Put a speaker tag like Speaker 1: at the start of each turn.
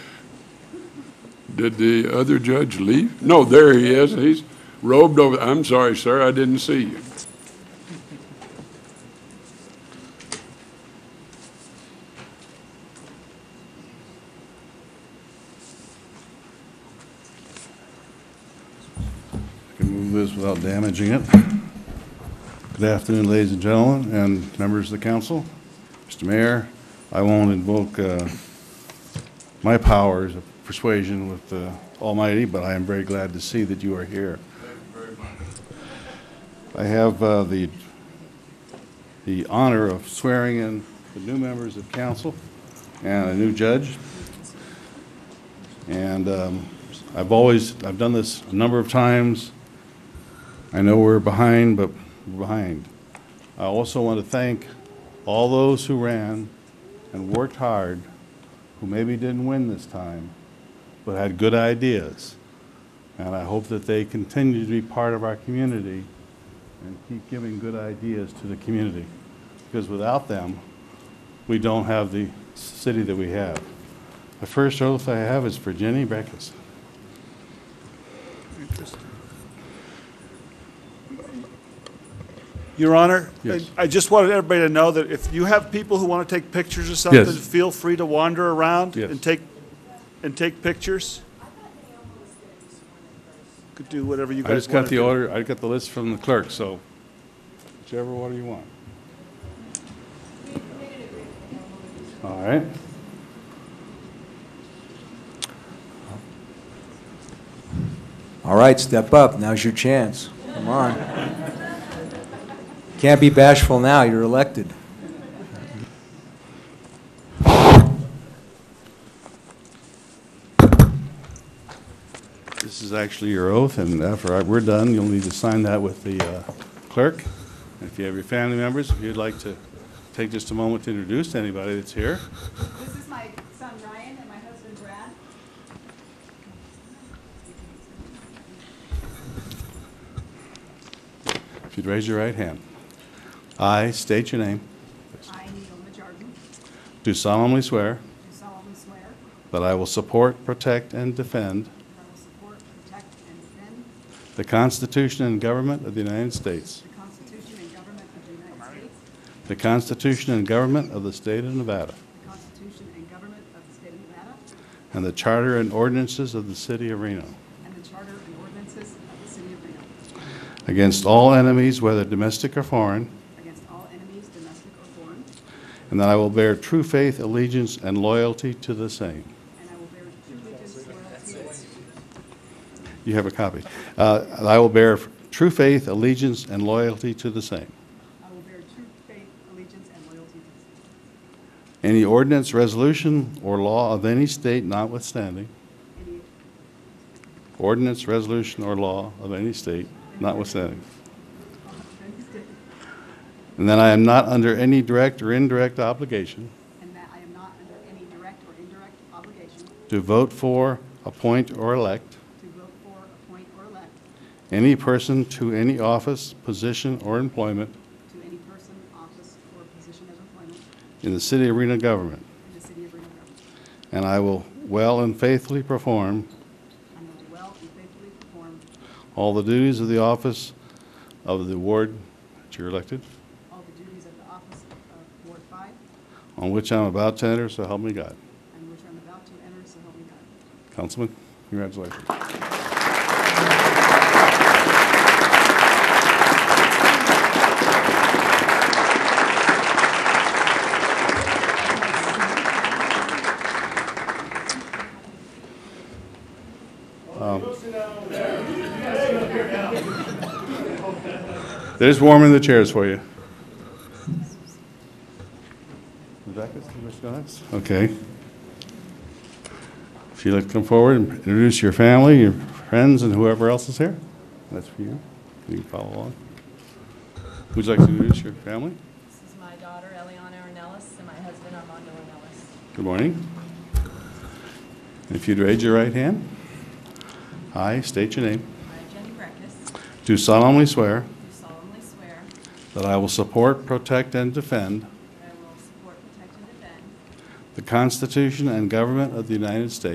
Speaker 1: Did the other judge leave? No, there he is. He's robed over. I'm sorry, sir, I didn't see you.
Speaker 2: Can move this without damaging it. Good afternoon, ladies and gentlemen, and members of the council. Mr. Mayor, I won't invoke uh, my powers of persuasion with the Almighty, but I am very glad to see that you are here. I have uh, the the honor of swearing in the new members of council and a new judge. And um, I've always, I've done this a number of times. I know we're behind, but we're behind. I also want to thank all those who ran and worked hard, who maybe didn't win this time, but had good ideas. And I hope that they continue to be part of our community and keep giving good ideas to the community. Because without them, we don't have the city that we have. The first oath I have is for Jenny Beckus.
Speaker 3: Your Honor?
Speaker 2: Yes.
Speaker 3: I I just wanted everybody to know that if you have people who want to take pictures or something,
Speaker 2: Yes.
Speaker 3: feel free to wander around
Speaker 2: Yes.
Speaker 3: and take, and take pictures. Could do whatever you
Speaker 2: I
Speaker 3: guys
Speaker 2: just
Speaker 3: want
Speaker 2: got
Speaker 3: to
Speaker 2: the
Speaker 3: do.
Speaker 2: order, I got the list from the clerk, so whichever order you want. All right.
Speaker 4: All right, step up. Now's your chance. Come on. Can't be bashful now. You're elected.
Speaker 2: This is actually your oath, and after I- we're done, you'll need to sign that with the uh, clerk. And If you have your family members, if you'd like to take just a moment to introduce anybody that's here.
Speaker 5: This is my son Ryan and my husband Brad.
Speaker 2: If you'd raise your right hand. I state your name,
Speaker 5: I, Neil Majardin,
Speaker 2: do solemnly swear
Speaker 5: do solemnly swear
Speaker 2: that I will support, protect, and defend
Speaker 5: that I will support, protect, and defend
Speaker 2: the Constitution and government of the United States,
Speaker 5: the Constitution and government of the United States,
Speaker 2: the Constitution and government of the state of Nevada,
Speaker 5: the Constitution and government of the state of Nevada,
Speaker 2: and the charter and ordinances of the city of Reno,
Speaker 5: and the charter and ordinances of the city of Reno,
Speaker 2: against all enemies, whether domestic or foreign,
Speaker 5: against all enemies, domestic or foreign,
Speaker 2: and that I will bear true faith, allegiance, and loyalty to the same.
Speaker 5: and I will bear true allegiance, loyalty,
Speaker 2: You have a copy. Uh, and I will bear true faith, allegiance, and loyalty to the same.
Speaker 5: I will bear true faith, allegiance, and loyalty to the state,
Speaker 2: Any ordinance, resolution, or law of any state notwithstanding,
Speaker 5: any,
Speaker 2: ordinance, resolution, or law of any state notwithstanding. And that I am not under any direct or indirect obligation
Speaker 5: and that I am not under any direct or indirect obligation
Speaker 2: to vote for, appoint, or elect
Speaker 5: to vote for, appoint, or elect
Speaker 2: any person to any office, position, or employment
Speaker 5: to any person, office, or position of employment
Speaker 2: in the city of Reno government.
Speaker 5: in the city of Reno. Government.
Speaker 2: And I will well and faithfully perform
Speaker 5: And will well and faithfully perform
Speaker 2: all the duties of the office of the ward that you're elected,
Speaker 5: all the duties of the office of Ward 5,
Speaker 2: on which I'm about to enter, so help me God.
Speaker 5: and which I'm about to enter, so help me God.
Speaker 2: Councilman, congratulations. Um, There's warm in the chairs for you. Rebecca, you wish to go next? Okay. If you'd like to come forward and introduce your family, your friends, and whoever else is here, that's for you. You can follow along. Would you like to introduce your family?
Speaker 6: This is my daughter Eliana Ornelas and my husband Armando Ornelas.
Speaker 2: Good morning. If you'd raise your right hand. I state your name.
Speaker 6: I, Jenny Breckus, do
Speaker 2: Do solemnly swear
Speaker 6: solemnly swear
Speaker 2: that I will support, protect, and defend
Speaker 6: that I will support, protect, and defend
Speaker 2: the Constitution and government of the United States